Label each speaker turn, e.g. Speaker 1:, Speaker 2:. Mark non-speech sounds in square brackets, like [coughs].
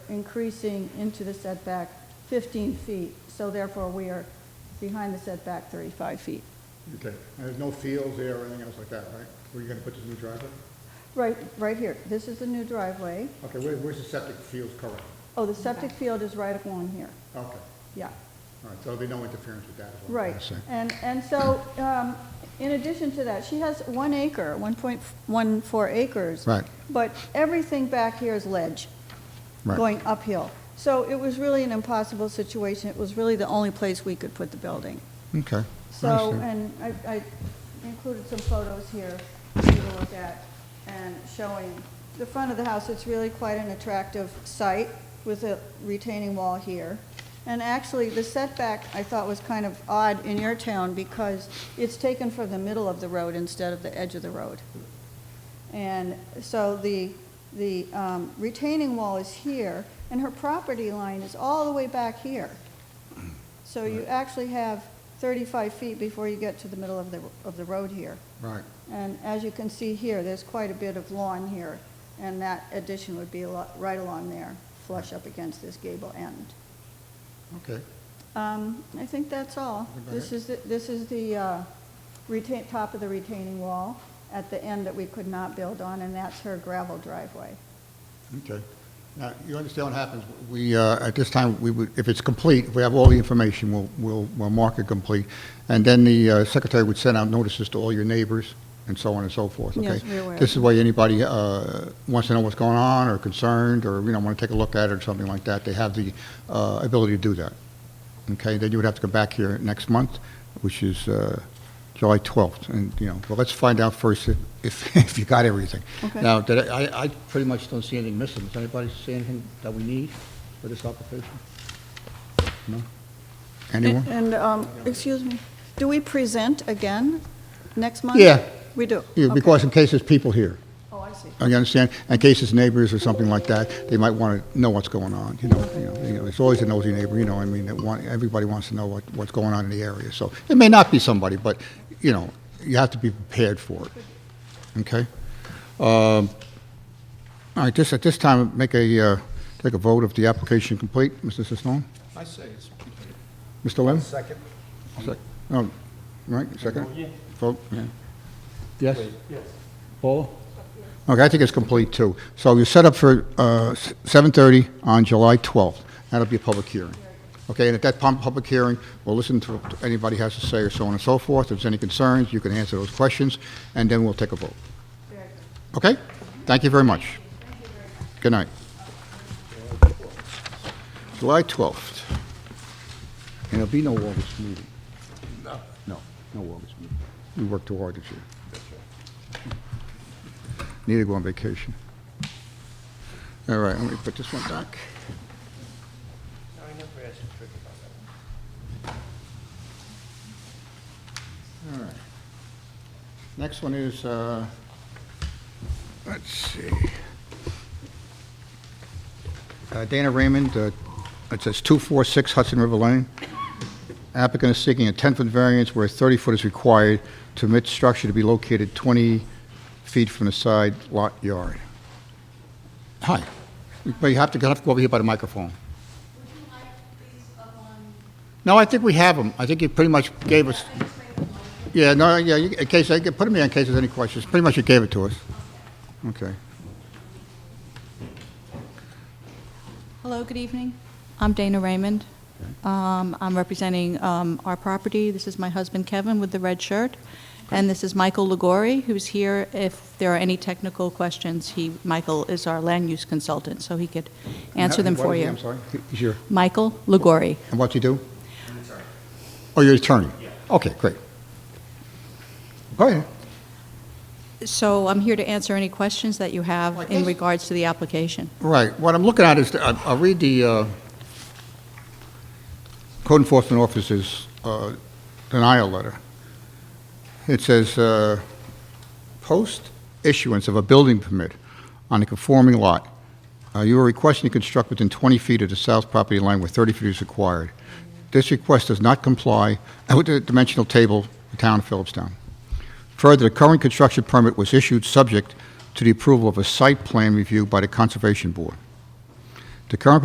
Speaker 1: increasing into the setback 15 feet, so therefore we are behind the setback 35 feet.
Speaker 2: Okay, and there's no fields there or anything else like that, right? Where you gonna put this new driveway?
Speaker 1: Right, right here, this is the new driveway.
Speaker 2: Okay, where, where's the septic fields currently?
Speaker 1: Oh, the septic field is right along here,
Speaker 2: Okay, all
Speaker 1: yeah,
Speaker 2: right, so there'll be no interference with that as well?
Speaker 1: right. And, and so, um, in addition to that, she has one acre, 1.14 acres.
Speaker 2: Right.
Speaker 1: But everything back here is ledge.
Speaker 2: Right,
Speaker 1: going uphill. So it was really an impossible situation. It was really the only place we could put the building.
Speaker 2: okay.
Speaker 1: So, and I, I included some photos here for you to look at and showing the front of the house. It's really quite an attractive site with a retaining wall here. And actually, the setback I thought was kind of odd in your town because it's taken from the middle of the road instead of the edge of the road. And so the, the um, retaining wall is here, and her property line is all the way back here. So you actually have 35 feet before you get to the middle of the, of the road here.
Speaker 2: Right,
Speaker 1: And as you can see here, there's quite a bit of lawn here, and that addition would be a lot, right along there, flush up against this gable end.
Speaker 2: okay,
Speaker 1: Um, I think that's all. This is, the- this is the uh, retain, top of the retaining wall at the end that we could not build on, and that's her gravel driveway.
Speaker 2: okay. Now, you understand what happens, we, uh, at this time, we would, if it's complete, if we have all the information, we'll, we'll, we'll mark it complete, and then the uh, secretary would send out notices to all your neighbors, and so on and so forth, okay?
Speaker 1: Yes, we're aware.
Speaker 2: This is why anybody uh, wants to know what's going on, or concerned, or, you know, want to take a look at it, or something like that, they have the uh, ability to do that. Okay, then you would have to come back here next month, which is uh, July 12th, and, you know, well, let's find out first if- if, [laughs] if you got everything.
Speaker 1: Okay.
Speaker 2: Now, did I, I- I pretty much don't see anything missing. Does anybody see anything that we need for this application? No? Anyone?
Speaker 1: And, um, excuse me, do we present again next month?
Speaker 2: Yeah.
Speaker 1: We do?
Speaker 2: Yeah,
Speaker 1: Okay.
Speaker 2: Because in case there's people here,
Speaker 1: Oh, I see.
Speaker 2: you understand? In case it's neighbors or something like that, they might want to know what's going on, you know? You know, you know, it's always a nosy neighbor, you know, I mean, that want- everybody wants to know what, what's going on in the area. So it may not be somebody, but, you know, you have to be prepared for it. Okay? All right, just at this time, make a, uh, take a vote of the application complete, Mr. Sisnone?
Speaker 3: I say it's complete.
Speaker 2: Mr. Lim?
Speaker 3: Second.
Speaker 2: Sec- Oh, right, second? Vote, yeah. Yes?
Speaker 3: Yes.
Speaker 2: Paula? Okay, I think it's complete, too. So you're set up for uh, s- 7:30 on July 12th. That'll be a public hearing. Okay, and at that pub- public hearing, we'll listen to what anybody has to say, or so on and so forth. If there's any concerns, you can answer those questions, and then we'll take a vote. Okay? Thank you very much. Good night. July 12th. And there'll be no August meeting. No. No, no August meeting. We worked too hard this year. Need to go on vacation. All right, let me put this one back.
Speaker 3: I never asked Trick about that.
Speaker 2: All right. Next one is, uh, let's see. Uh, Dana Raymond, uh, it says 246 Hudson River Lane. Applicant is seeking a 10-foot variance where 30-foot is required to permit structure to be located 20 feet from the side lot yard. Hi. But you have to, you have to go over here by the microphone. No, I think we have them. I think you pretty much gave us... Yeah, no, yeah, you- in case, I could put them in in case there's any questions. Pretty much you gave it to us. Okay.
Speaker 4: Hello, good evening. I'm Dana Raymond. Um, I'm representing um, our property. This is my husband Kevin with the red shirt. And this is Michael Legori, who's here. If there are any technical questions, he, Michael is our land use consultant, so he could answer them
Speaker 2: What
Speaker 4: for
Speaker 2: is he?
Speaker 4: you.
Speaker 2: I'm sorry. He's your,
Speaker 4: Michael Legori.
Speaker 2: and what you do? Oh, you're attorney? Okay, great. Go ahead.
Speaker 4: So I'm here to answer any questions that you
Speaker 2: Well, I
Speaker 4: have in
Speaker 2: guess-
Speaker 4: regards to the application.
Speaker 2: Right, what I'm looking at is, the- I- I'll read the uh, code enforcement officer's uh, denial letter. It says, uh, "Post issuance of a building permit on a conforming lot, uh, you are requesting to construct within 20 feet of the south property line where 30 feet is required. This request does not comply [coughs] with the dimensional table, the town of Phillipstown. Further, the current construction permit was issued subject to the approval of a site plan review by the Conservation Board. The current